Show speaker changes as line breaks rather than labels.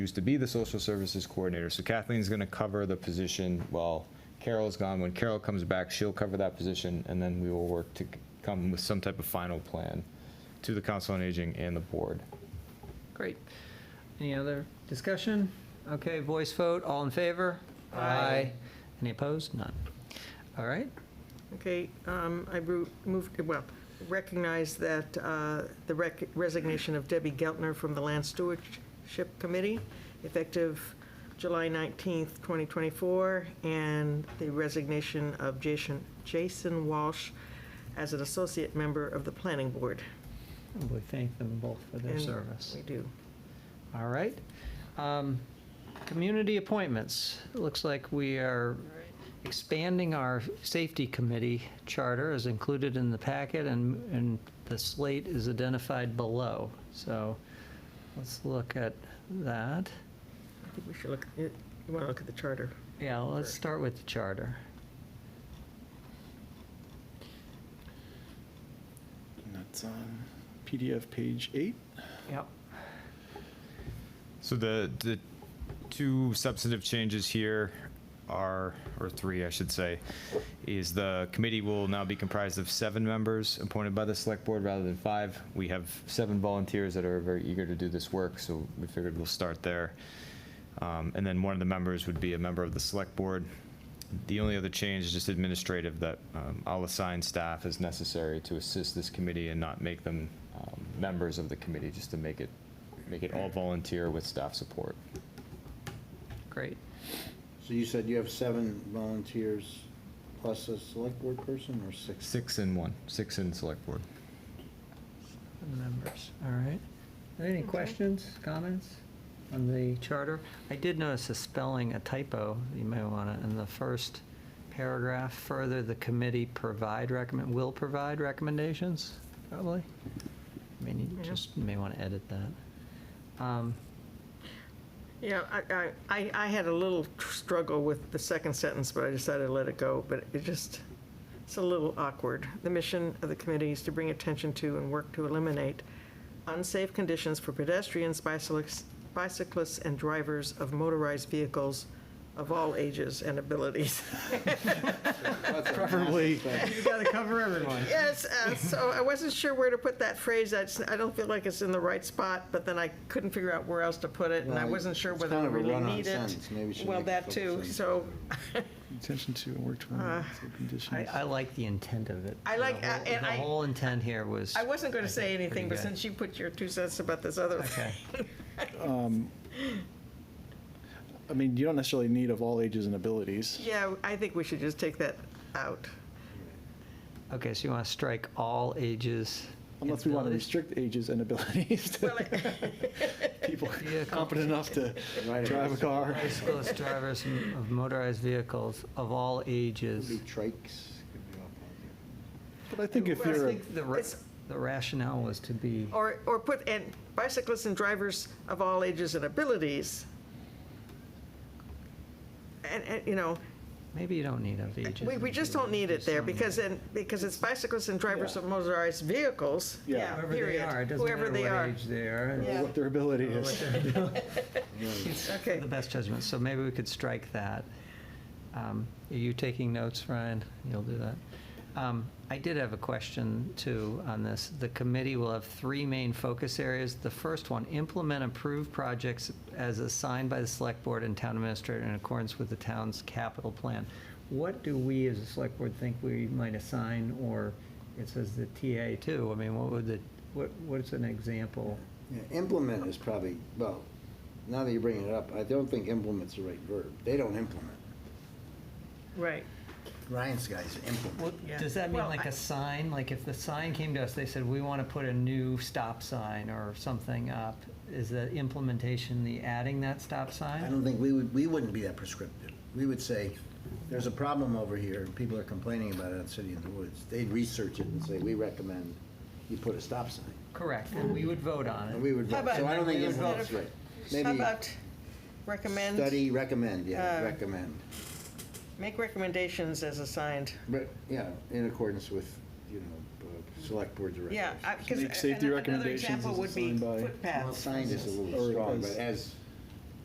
used to be the social services coordinator. So Kathleen's going to cover the position while Carol's gone. When Carol comes back, she'll cover that position, and then we will work to come with some type of final plan to the Council on Aging and the board.
Great. Any other discussion? Okay, voice vote, all in favor? Aye. Any opposed? None. All right,
Okay, um, I ru- moved, well, recognize that uh, the rec- resignation of Debbie Geltner from the Land Stewardship Committee, effective July 19th, 2024, and the resignation of Jason, Jason Walsh as an associate member of the Planning Board.
we thank them both for their
And
service.
We do.
All right. Um, Community appointments. It Looks like we are expanding our safety committee charter as included in the packet and, and the slate is identified below. So let's look at that.
I think we should look, you want to look at the charter.
Yeah, let's
Sure.
start with the charter.
And that's on PDF page eight.
Yep.
So the, the two substantive changes here are, or three, I should say, is the committee will now be comprised of seven members appointed by the select board rather than five. We have seven volunteers that are very eager to do this work, so we figured we'll start there. Um, And then one of the members would be a member of the select board. The only other change is just administrative, that um, I'll assign staff as necessary to assist this committee and not make them um, members of the committee, just to make it, make it all volunteer with staff support.
Great.
So you said you have seven volunteers plus a select board person or six?
Six in one, six in select board.
members, all right. Any
Okay.
questions, comments on the charter? I did notice a spelling, a typo, you may want to, in the first paragraph, further, the committee provide recommend, will provide recommendations, probably. I mean, you
Yeah.
just may want to edit that. Um,
Yeah, I, I- I, I had a little struggle with the second sentence, but I decided to let it go, but it just, it's a little awkward. The mission of the committee is to bring attention to and work to eliminate unsafe conditions for pedestrians, bicyclists, bicyclists, and drivers of motorized vehicles of all ages and abilities.
Preferably.
You got to cover everyone.
Yes, uh, so I wasn't sure where to put that phrase. I, just- I don't feel like it's in the right spot, but then I couldn't figure out where else to put it, and I
Well,
wasn't sure
it's
whether
kind
I
of a
really
run-on
need it.
sentence. Maybe we should
Well,
make it
that too,
focus on-
so
Attention to and work to
Uh,
one conditions.
I, I like the intent of it.
I like-
The whole-
and I-
The whole intent here was.
I wasn't going to say
think
anything, but
pretty good.
since you put your two cents about this other
Okay.
I mean, you don't necessarily need of all ages and abilities.
Yeah, I think we should just take that out.
Okay, so you want to strike all ages.
Unless we want to
abilities?
restrict ages and abilities
Well,
to people
Vehicles.
competent enough to
Right.
drive a car.
Bicyclist drivers m- of motorized vehicles of all
Could be
ages.
trikes, could be all kinds
But I think if
Well, I
you're,
I
a-
think the ra-
It's-
the rationale was to be,
Or, or put, and bicyclists and drivers of all ages and abilities. And, and, you know,
maybe you don't need of ages.
we, we just don't need it there because, and, because it's bicyclists and drivers of motorized vehicles.
Yeah.
Whoever they
period.
are, it doesn't
Whoever
matter
they
what
are.
age they are. and
Yeah.
what their ability
what
is.
they're doing,
of things.
Okay.
The best judgment, so maybe we could strike that. Um, Are you taking notes, Ryan? You'll do that. Um, I did have a question too on this. The committee will have three main focus areas. The first one, implement approved projects as assigned by the select board and town administrator in accordance with the town's capital plan. What do we as a select board think we might assign, or it says the TA too? I mean, what would the, what, what's an example?
Yeah, Implement is probably, well, now that you're bringing it up, I don't think implement's the right verb. They don't implement.
Right.
Ryan's guys implement.
Yeah.
Does that mean
Well,
like
I-
a sign? Like if the sign came to us, they said, we want to put a new stop sign or something up, is the implementation the adding that stop
I
sign?
don't think, we would, we wouldn't be that prescriptive. We would say, there's a problem over here, and people are complaining about it on City in the Woods. They'd research it and say, we recommend you put a stop sign.
Correct, and we would vote on
And
it.
we would
How
vote. So
about-
I don't think
How
implement's
about-
right.
How
Maybe
about recommend?
study, recommend, yeah,
Uh,
recommend.
Make recommendations as assigned.
But, yeah, in accordance with, you know, uh, select board direction.
Yeah, because
Make safety
another
recommendations
example
as
would be
assigned by-
Well,
footpaths.
signed is a
Or
little strong, but
as-
as